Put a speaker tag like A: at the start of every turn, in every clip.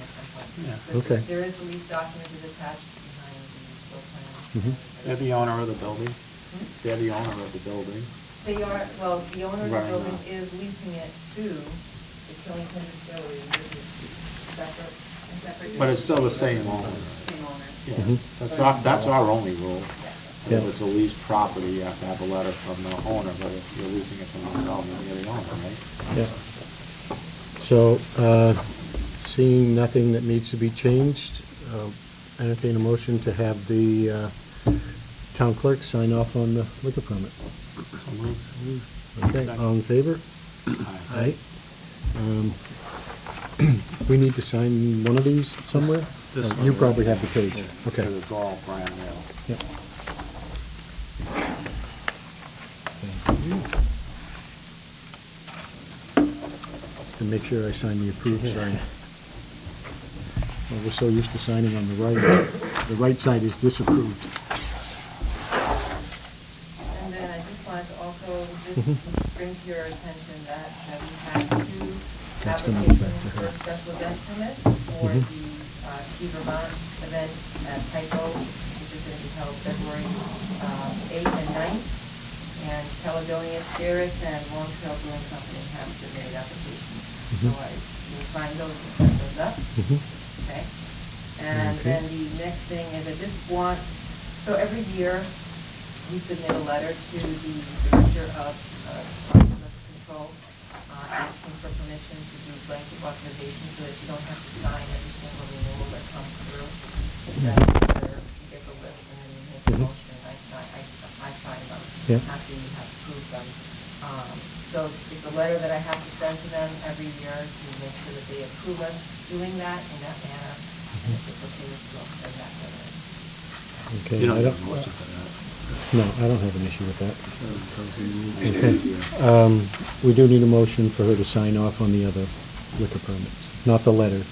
A: Yeah.
B: But
C: Okay.
B: There is a lease document that's attached behind the floor
C: Mhm.
B: plan.
A: They're the owner of the building.
B: Hmm?
A: They're the owner of the building.
B: They are, well, the owner of the
A: Right.
B: building is leasing it to the Killington Distillery, which is separate, a separate.
A: But it's still the same owner.
B: Same owner.
C: Mhm.
A: Yes, that's our, that's our only rule.
B: Yeah.
A: If it's a leased property, you have to have a letter from the owner, but if you're leasing it from yourself, then you're the owner, right?
C: Yeah. So, uh, seeing nothing that needs to be changed, uh, entertain a motion to have the uh, town clerk sign off on the liquor permit.
A: So moved.
C: Okay, all in favor?
A: Aye.
C: Aye. Um, We need to sign one of these somewhere?
A: This
C: Oh,
A: one
C: You
A: right
C: probably
A: here.
C: have the page,
A: Yeah,
C: okay.
A: Because it's all brand new.
C: Yep. And make sure I sign the approved side. Well, We're so used to signing on the right, the right side is disapproved.
B: And then I just wanted to also
C: Mhm.
B: just bring to your attention that that we had two
C: That's gonna be back to
B: applications for
C: her.
B: special event permits for
C: Mhm.
B: the uh, Ski Vermont event at Tyco, which is going to be held February um, 8th and 9th. And Caledonia Spirits and Long Trail Brewing Company have submitted applications. So
C: Mhm.
B: I will find those and set those up.
C: Mm-hmm.
B: Okay. And
C: Okay.
B: then the next thing is I just want, so every year, we submit a letter to the Director of uh, Wildlife Control, uh, asking for permission to do blanket authorization so that you don't have to sign every single renewal that comes through. That you get the list and then you make a
C: Mhm.
B: motion, I sign, I I sign them
C: Yeah.
B: after you have approved them. Um, So it's a letter that I have to send to them every year to make sure that they approve us doing that in that manner.
C: Mm-hmm.
B: And if it's okay with you, I'll send that letter.
C: Okay,
A: You don't
C: I
A: have
C: don't-
A: to watch it for
C: No, I don't have an issue with that.
A: that. Makes it easier.
C: Um, We do need a motion for her to sign off on the other liquor permits, not the letter.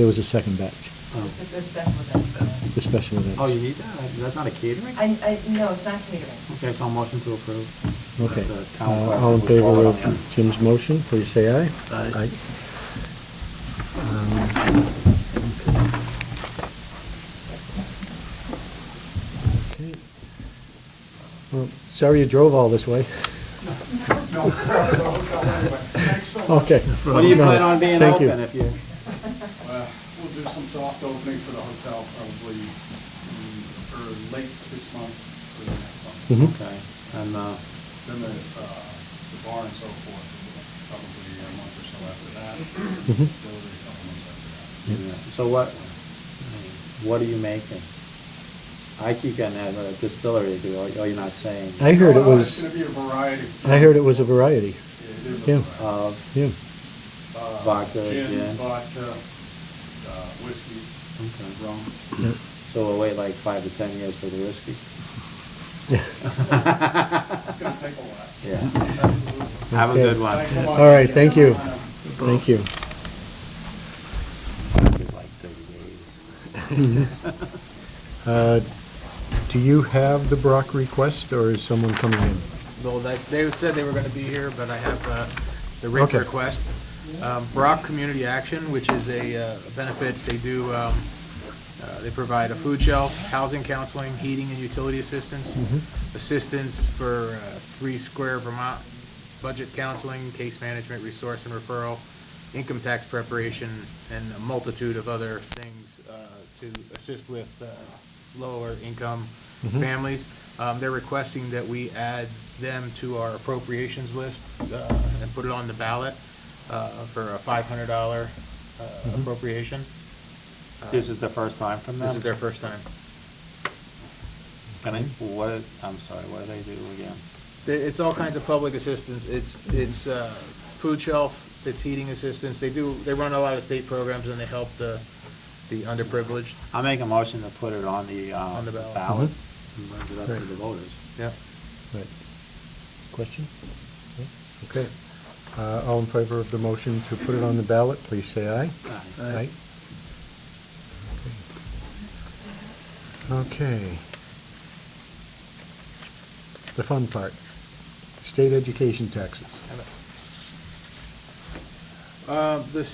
C: There was a second batch,
A: Oh.
B: It's a special event.
C: the special events.
A: Oh, you need that? That's not a catering?
B: I, I, no, it's not catering.
A: Okay, so a motion to approve.
C: Okay.
A: The town clerk
C: Uh, All in
A: was
C: favor
A: voted on.
C: of Jim's motion, please say aye.
A: Aye.
C: Um, okay. Well, Sorry you drove all this way. Okay.
A: What do you
C: No,
A: plan on being
C: Thank you.
A: open if you?
D: Well, Uh, We'll do some soft opening for the hotel probably mm, or late this month or the next
C: Mhm.
D: month.
A: Okay, and, uh,
D: Then the, uh, the bar and so forth, probably a month or so after that.
C: Mhm.
D: Distillery, a couple months after that.
A: yeah. so what, what are you making? I keep getting that uh, distillery, do, oh, you're not saying.
C: I heard it
D: Well, It's
C: was,
D: gonna be a variety.
C: I heard it was a variety,
D: Yeah, It is a
C: yeah.
D: variety.
A: Of,
C: yeah.
D: Uh,
A: vodka, gin.
D: Gin, vodka, uh, whiskey,
A: Okay.
D: rum.
C: yeah.
A: so we'll wait like five to ten years for the whiskey?
D: It's gonna take a while.
A: Yeah,
D: Absolutely.
A: have a
C: Okay.
A: good one.
D: Thanks a lot.
C: All right, thank you.
D: Um,
C: Thank you.
A: It's like thirty days.
C: Uh, Do you have the Brock request, or is someone coming in?
E: Well, they- they said they were going to be here, but I have uh, the rate
C: Okay.
E: request. Um, Brock Community Action, which is a uh, benefit, they do, um, uh, they provide a food shelf, housing counseling, heating and utility assistance, assistance for uh, Three Square Vermont, budget counseling, case management, resource and referral, income tax preparation, and a multitude of other things uh, to assist with uh, lower income families. Um, They're requesting that we add them to our appropriations list uh, and put it on the ballot uh, for a $500 uh, appropriation. Uh,
A: This is the first time from them?
E: This is their first time.
A: Can I, what, I'm sorry, what do they do again?
E: They- It's all kinds of public assistance. It's, it's uh, food shelf, it's heating assistance. They do, they run a lot of state programs and they help the, the underprivileged.
A: I'll make a motion to put it on the, uh.
E: On the ballot.
A: And bring it up to
C: Right.
A: the voters.
E: Yeah.
C: Right. Question? No? Okay. Uh, All in favor of the motion to put it on the ballot, please say aye.
A: Aye.
C: Aye. Okay. The fun part, state education taxes.
E: Uh, The